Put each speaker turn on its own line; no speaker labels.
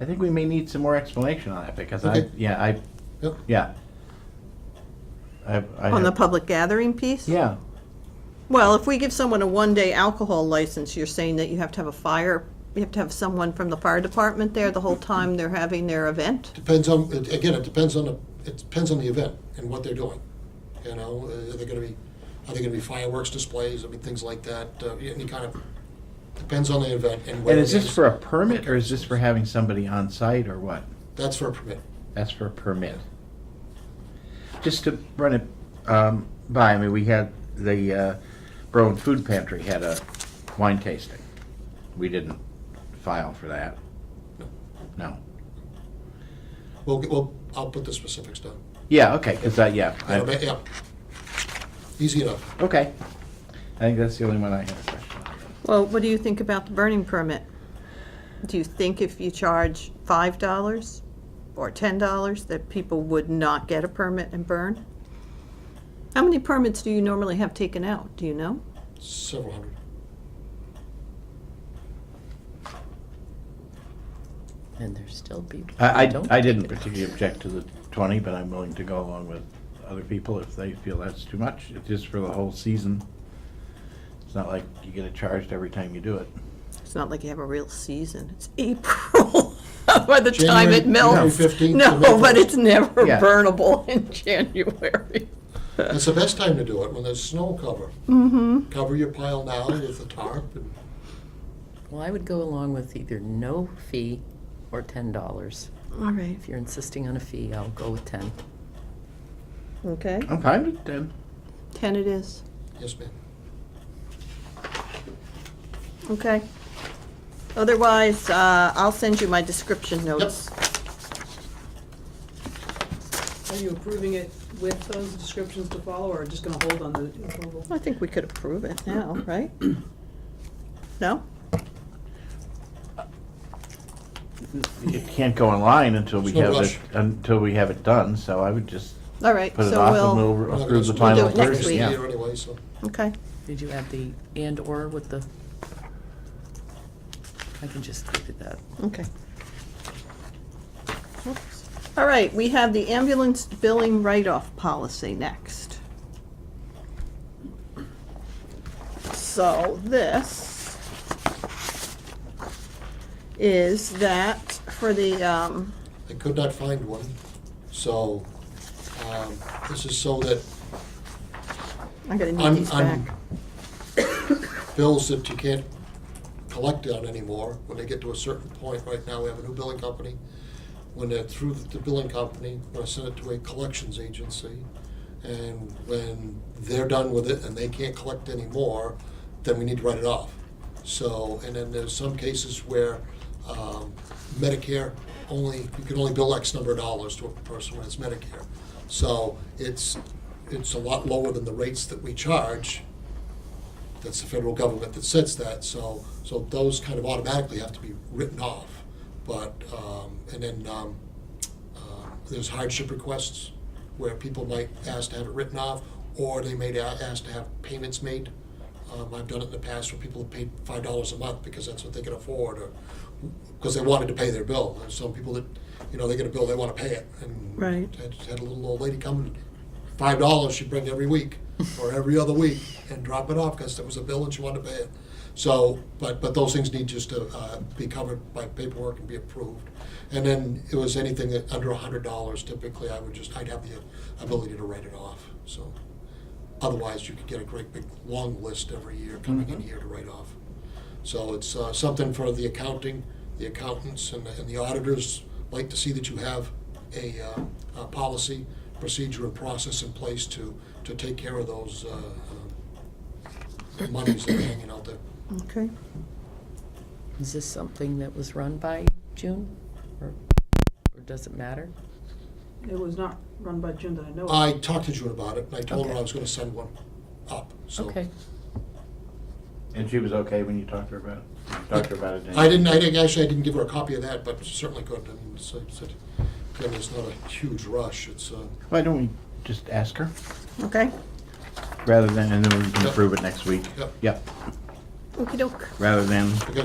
I think we may need some more explanation on that because
Okay.
I, yeah, I,
Yep.
yeah. I- I
On the
have-
public gathering piece?
Yeah,
Well, if we give someone a one-day alcohol license, you're saying that you have to have a fire, you have to have someone from the fire department there the whole time they're having their event?
Depends on, it- again, it depends on the, it depends on the event and what they're doing. You know, uh, are they gonna be, are they gonna be fireworks displays, I mean, things like that, uh, any kind of, depends on the event and where
and
it
is
is.
this for a permit or is this for having somebody on site or what?
That's for a permit.
That's for a permit. Just to run it um, by, I mean, we had the uh, Berlin Food Pantry had a wine tasting. We didn't file for that.
No.
No.
We'll, we'll, I'll put the specifics down.
Yeah, okay, because, yeah. I-
Yeah, yeah. Easy enough.
Okay. I think that's the only one I had a question on.
Well, what do you think about the burning permit? Do you think if you charge five dollars or ten dollars that people would not get a permit and burn? How many permits do you normally have taken out, do you know?
Several hundred.
And there's still people.
I,
who don't
I, I
take
didn't
it.
particularly object to the twenty, but I'm willing to go along with other people if they feel that's too much. It's just for the whole season. It's not like you get it charged every time you do it.
It's not like you have a real season. It's April by the time
January-
it melts.
January 15th to May
No, but
15th.
it's never
Yeah.
burnable in January.
That's the best time to do it, when there's snow cover.
Mm-hmm.
Cover your pile now with a tarp and
Well, I would go along with either no fee or ten dollars.
All right.
If you're insisting on a fee, I'll go with ten.
Okay.
I'm fine with ten.
Ten it is.
Yes, ma'am.
Okay. Otherwise, uh, I'll send you my description notes.
Are you approving it with those descriptions to follow, or just gonna hold on the approval?
I think we could approve it now, right? No?
It can't go online until we
There's no
have
rush.
it, until we have it done, so I would just
All right,
put it
so
off and
we'll,
We're
we'll
not
approve
gonna-
the final
We'll do it next
version,
week.
yeah.
Anyway, so.
okay.
Did you add the and/or with the? I can just do that.
Okay. Oops. All right, we have the ambulance billing write-off policy next. So this is that for the, um,
I could not find one, so, um, this is so that
I gotta need
un,
these
un,
back.
bills that you can't collect on anymore, when they get to a certain point, right now, we have a new billing company. When they're through the billing company, I send it to a collections agency, and when they're done with it and they can't collect anymore, then we need to write it off. So, and then there's some cases where, um, Medicare only, you can only bill X number of dollars to a person when it's Medicare. So it's, it's a lot lower than the rates that we charge, that's the federal government that sets that, so, so those kind of automatically have to be written off. But, um, and then, um, uh, there's hardship requests where people might ask to have it written off, or they may a- ask to have payments made. Um, I've done it in the past where people have paid five dollars a month because that's what they can afford, or, because they wanted to pay their bill. There's some people that, you know, they get a bill, they wanna pay it, and.
Right.
Had, had a little old lady come, five dollars she'd bring every week, or every other week, and drop it off, because there was a bill and she wanted to pay it. So, but, but those things need just to, uh, be covered by paperwork and be approved. And then it was anything that, under a hundred dollars typically, I would just, I'd have the ability to write it off, so. Otherwise, you could get a great big, long list every year coming in here to write off. So it's uh, something for the accounting, the accountants and the- and the auditors like to see that you have a, uh, a policy, procedure and process in place to, to take care of those uh, uh, monies that are hanging out there.
Okay.
Is this something that was run by June, or, or does it matter?
It was not run by Jim that I know of.
I talked to June about it and I told her I
Okay.
was gonna send one up, so.
Okay.
And she was okay when you talked to her about it? Talked to her about it? didn't
I
you?
didn't, I didn't, actually, I didn't give her a copy of that, but certainly could, and so, so, again, it's not a huge rush, it's, uh,
Why don't we just ask her
Okay,
rather than, and then we can
Yep.
approve it next week?
Yep.
Yep,
okey doke.
rather than